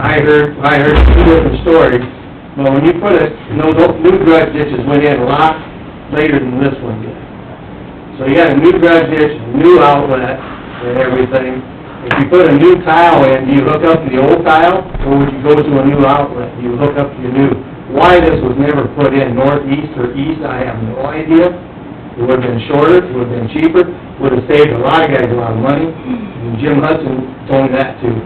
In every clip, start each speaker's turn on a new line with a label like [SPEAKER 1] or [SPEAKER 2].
[SPEAKER 1] I heard, I heard two different stories, but when you put it, no, no, new grudge ditches went in a lot later than this one did. So you got a new grudge ditch, new outlet and everything. If you put a new tile in, do you hook up to the old tile, or would you go to a new outlet? Do you hook up to your new? Why this was never put in northeast or east, I have no idea. It would've been shorter, it would've been cheaper, would've saved a lot of guys a lot of money, and Jim Hudson told me that too.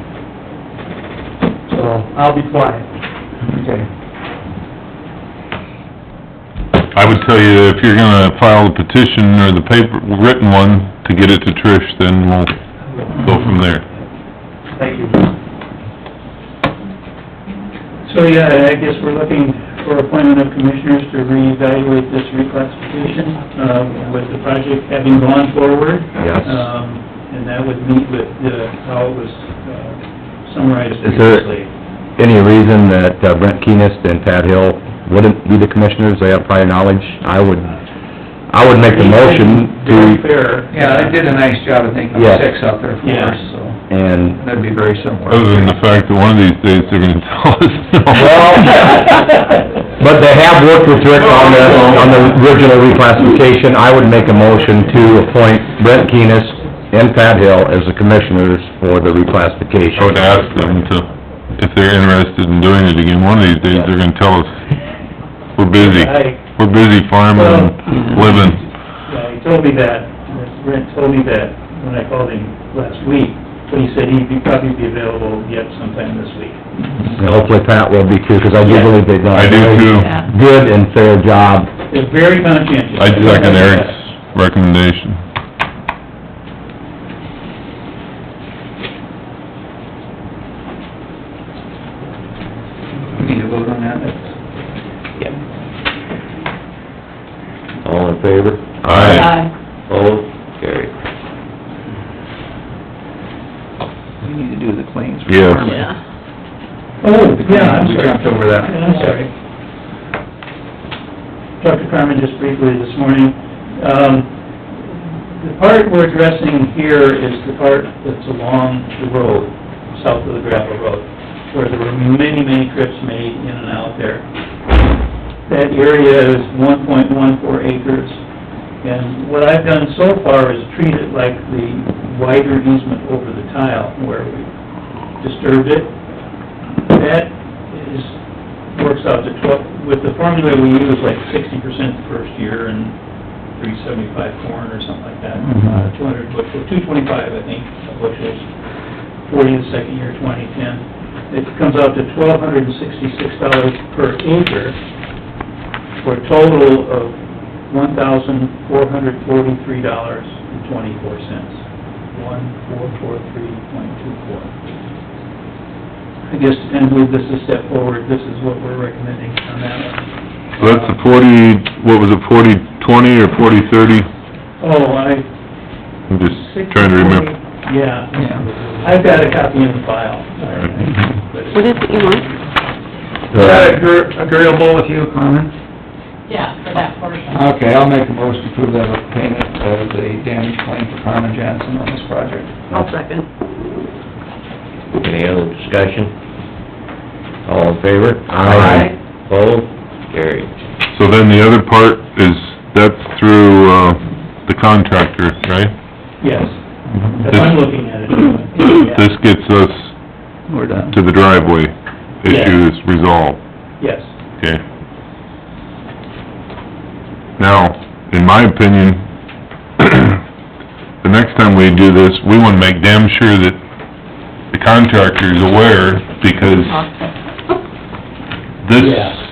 [SPEAKER 1] So, I'll be quiet. Okay.
[SPEAKER 2] I would tell you, that if you're gonna file the petition or the paper, written one, to get it to Trish, then we'll go from there.
[SPEAKER 1] Thank you.
[SPEAKER 3] So, yeah, I guess we're looking for appointment of commissioners to reevaluate this reclassification, uh, with the project having gone forward.
[SPEAKER 4] Yes.
[SPEAKER 3] Um, and that would meet with the, how it was uh, summarized
[SPEAKER 4] Is there-
[SPEAKER 3] previously.
[SPEAKER 4] Any reason that uh, Brent Keenest and Pat Hill wouldn't be the commissioners, they have prior knowledge? I would, I would make the motion
[SPEAKER 3] Very
[SPEAKER 4] to,
[SPEAKER 3] fair.
[SPEAKER 5] Yeah, they did a nice job, I think, of
[SPEAKER 4] Yeah.
[SPEAKER 5] six out there for
[SPEAKER 3] Yeah.
[SPEAKER 5] us, so,
[SPEAKER 4] and,
[SPEAKER 5] that'd be very similar.
[SPEAKER 2] Other than the fact that one of these days they're gonna tell us no.
[SPEAKER 4] well, but they have worked with Rick on the, on the original reclassification. I would make a motion to appoint Brent Keenest and Pat Hill as the commissioners for the reclassification.
[SPEAKER 2] I would ask them to, if they're interested in doing it again, one of these days they're gonna tell us, we're busy.
[SPEAKER 3] I,
[SPEAKER 2] We're busy farming and living.
[SPEAKER 3] yeah, he told me that, Brent told me that when I called him last week, but he said he'd be- probably be available yet sometime this week.
[SPEAKER 4] And hopefully Pat will be too, because I do believe they've done
[SPEAKER 2] I
[SPEAKER 4] a
[SPEAKER 2] do
[SPEAKER 4] very
[SPEAKER 2] too.
[SPEAKER 4] good and fair job.
[SPEAKER 3] It's very conscientious.
[SPEAKER 2] I second Eric's recommendation.
[SPEAKER 5] We need to vote on that.
[SPEAKER 4] All in favor?
[SPEAKER 2] Aye.
[SPEAKER 6] Uh,
[SPEAKER 4] Opposed? Carried.
[SPEAKER 5] We need to do the claims.
[SPEAKER 2] Yes.
[SPEAKER 6] Yeah.
[SPEAKER 3] Oh, yeah, I'm
[SPEAKER 5] We
[SPEAKER 3] sorry.
[SPEAKER 5] jumped over that.
[SPEAKER 3] Yeah, I'm sorry. Talked to Carmen just briefly this morning. Um, the part we're addressing here is the part that's along the road, south of the gravel road, where there were many, many trips made in and out there. That area is one point one four acres, and what I've done so far is treat it like the wider easement over the tile, where we disturbed it, that is, works out to twelve, with the formula we use, like sixty percent the first year and three seventy-five corn or something like that. Uh, Two hundred bushels, two twenty-five, I think, bushels, forty the second year, twenty, ten. It comes out to twelve hundred and sixty-six dollars per acre for a total of one thousand four hundred forty-three dollars and twenty-four cents. One, four, four, three, point two, four. I guess, and move this a step forward, this is what we're recommending on that one.
[SPEAKER 2] So that's the forty, what was it, forty twenty or forty thirty?
[SPEAKER 3] Oh, I,
[SPEAKER 2] I'm just trying to remember.
[SPEAKER 3] yeah,
[SPEAKER 5] Yeah.
[SPEAKER 3] I've got a copy in the file.
[SPEAKER 6] What is it you want?
[SPEAKER 5] Is that agree- agreeable with you, Carmen?
[SPEAKER 6] Yeah, for that portion.
[SPEAKER 5] Okay, I'll make a motion to approve that payment of the damage claim for Carmen Johnson on this project.
[SPEAKER 6] I'll second.
[SPEAKER 4] Any other discussion? All in favor?
[SPEAKER 6] Aye.
[SPEAKER 4] Opposed? Carried.
[SPEAKER 2] So then the other part is, that's through, uh, the contractor, right?
[SPEAKER 3] Yes, If I'm looking at it.
[SPEAKER 2] Mm-hmm. This gets us
[SPEAKER 5] We're done.
[SPEAKER 2] to the driveway issue is resolved,
[SPEAKER 3] Yes,
[SPEAKER 2] okay? Now, in my opinion, the next time we do this, we wanna make damn sure that the contractor is aware, because this,
[SPEAKER 3] Yeah.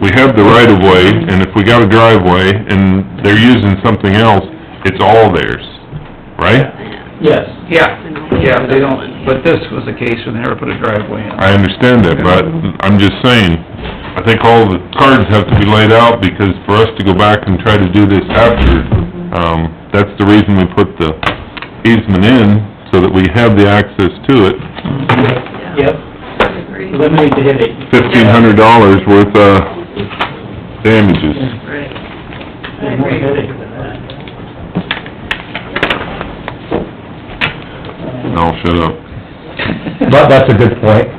[SPEAKER 2] we have the right of way, and if we got a driveway and they're using something else, it's all theirs, right?
[SPEAKER 3] yes.
[SPEAKER 5] Yeah, yeah, they don't, but this was the case when they never put a driveway in.
[SPEAKER 2] I understand that, but I'm just saying, I think all the cards have to be laid out because for us to go back and try to do this after, um, that's the reason we put the easement in, so that we have the access to it.
[SPEAKER 3] Yep, eliminate the headache.
[SPEAKER 2] Fifteen hundred dollars worth, uh, damages.
[SPEAKER 6] Right.
[SPEAKER 3] There's more headache than that.
[SPEAKER 2] And I'll shut up.
[SPEAKER 4] But that's a good point.